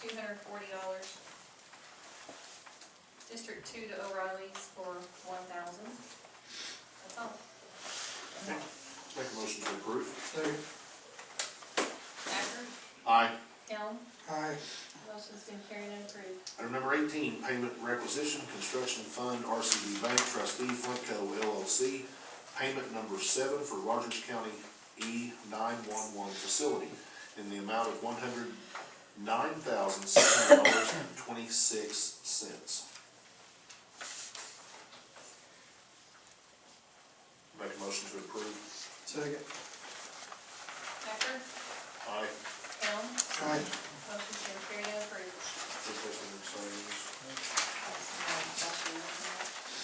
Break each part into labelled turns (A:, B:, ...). A: two hundred and forty dollars. District two to O'Reilly's for one thousand. That's all.
B: Make a motion to approve.
C: Second.
A: Thacker,
B: Aye.
A: Helm,
C: Aye.
A: motion's been carried and approved.
B: Item number eighteen, payment requisition, construction fund, RCB Bank trustee, Flintco LLC, payment number seven for Rogers County E nine-one-one facility in the amount of one hundred nine thousand six hundred dollars and twenty-six cents. Make a motion to approve.
C: Second.
A: Thacker,
B: Aye.
A: Helm,
C: Aye.
A: motion's been carried and approved.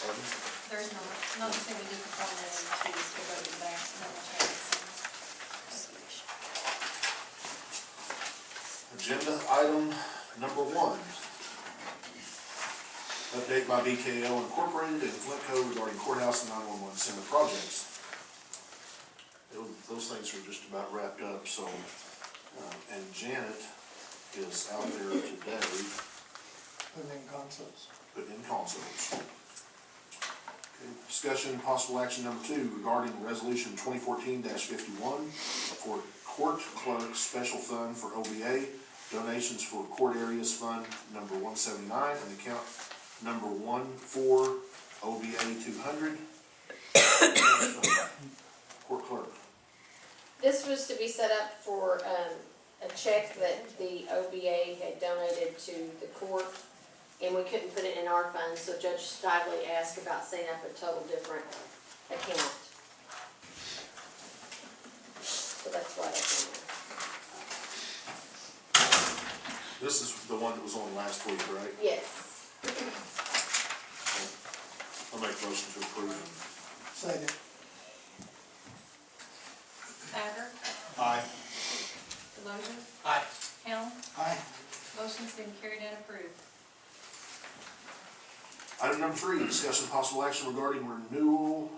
B: Pardon?
A: There's no, not saying we did perform that in two, so go to the back, no more changes.
B: Agenda item number one. Update by BKL Incorporated and Flintco regarding courthouse and nine-one-one center projects. Tho- Those things are just about wrapped up, so, uh, and Janet is out there today,
C: And then concepts.
B: but in consults. Okay, Discussion and possible action number two regarding resolution twenty fourteen fifty-one for court clerk special fund for OBA, donations for court areas fund number one seventy-nine and account number one four OBA two hundred. Court clerk.
D: This was to be set up for, um, a check that the OBA had donated to the court, and we couldn't put it in our funds, so Judge Stigley asked about setting up a total different account. So that's why that's in there.
B: This is the one that was on last week, right?
D: Yes,
B: I'll make a motion to approve.
C: Second.
A: Thacker,
B: Aye.
A: Delozer,
E: Aye.
A: Helm,
C: Aye.
A: motion's been carried and approved.
B: Item number three, discussion of possible action regarding renewal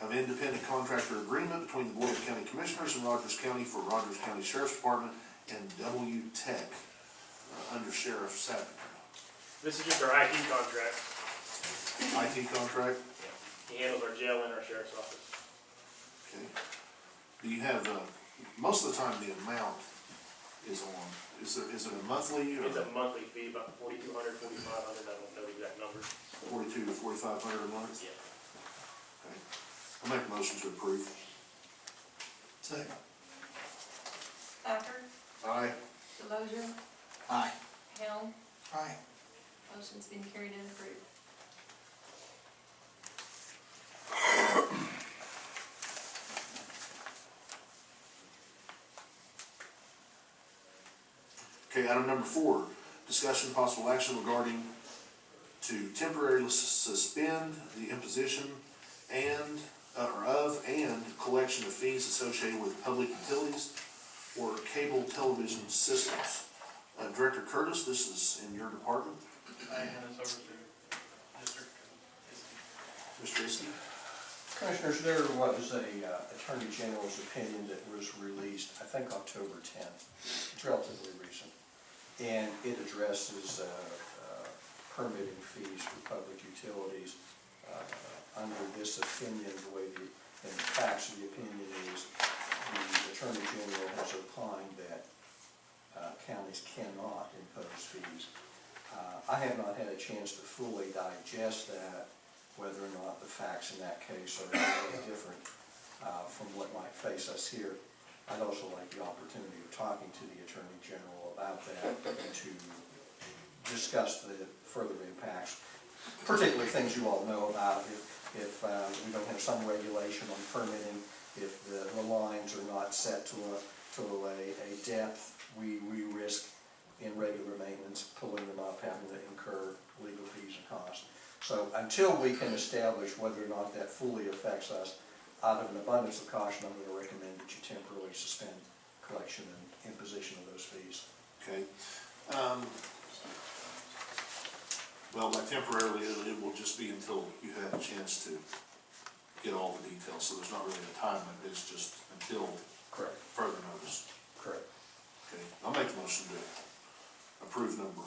B: of independent contractor agreement between the Board of County Commissioners and Rogers County for Rogers County Sheriff's Department and W Tech, uh, under Sheriff Sapp.
E: This is just our IT contract.
B: IT contract,
E: He handles our jail and our sheriff's office.
B: okay. Do you have, uh, most of the time the amount is on, is there, is it a monthly or
E: It's a monthly fee, about forty-two hundred, forty-five hundred, I don't know the exact number.
B: forty-two to forty-five hundred a month?
E: Yeah.
B: Okay. I'll make a motion to approve.
C: Second.
A: Thacker,
B: Aye.
A: Delozer,
C: Aye.
A: Helm,
C: Aye.
A: motion's been carried and approved.
B: Okay, item number four, discussion and possible action regarding to temporarily sus- suspend the imposition and, uh, or of, and collection of fees associated with public utilities or cable television systems. Uh, Director Curtis, this is in your department,
F: I hand this over to district.
B: Mr. Iskey.
G: Commissioners, there was a uh, Attorney General's opinion that was released, I think October 10th. It's relatively recent. And it addresses uh, uh, permitting fees for public utilities. Uh, Under this opinion, the way the, and the facts of the opinion is, the Attorney General has opined that uh, counties cannot impose fees. Uh, I have not had a chance to fully digest that, whether or not the facts in that case are really different uh, from what might face us here. I'd also like the opportunity of talking to the Attorney General about that and to discuss the further impacts, particularly things you all know about, if, if uh, we don't have some regulation on permitting, if the the lines are not set to a, to a, a depth, we, we risk in regular maintenance, pulling them up, having to incur legal fees and costs. So until we can establish whether or not that fully affects us, out of an abundance of caution, I'm gonna recommend that you temporarily suspend collection and imposition of those fees.
B: Okay. Um, Well, by temporarily, it it will just be until you have a chance to get all the details, so there's not really a time limit, it's just until
G: Correct.
B: further notice.
G: Correct.
B: Okay, I'll make a motion to approve number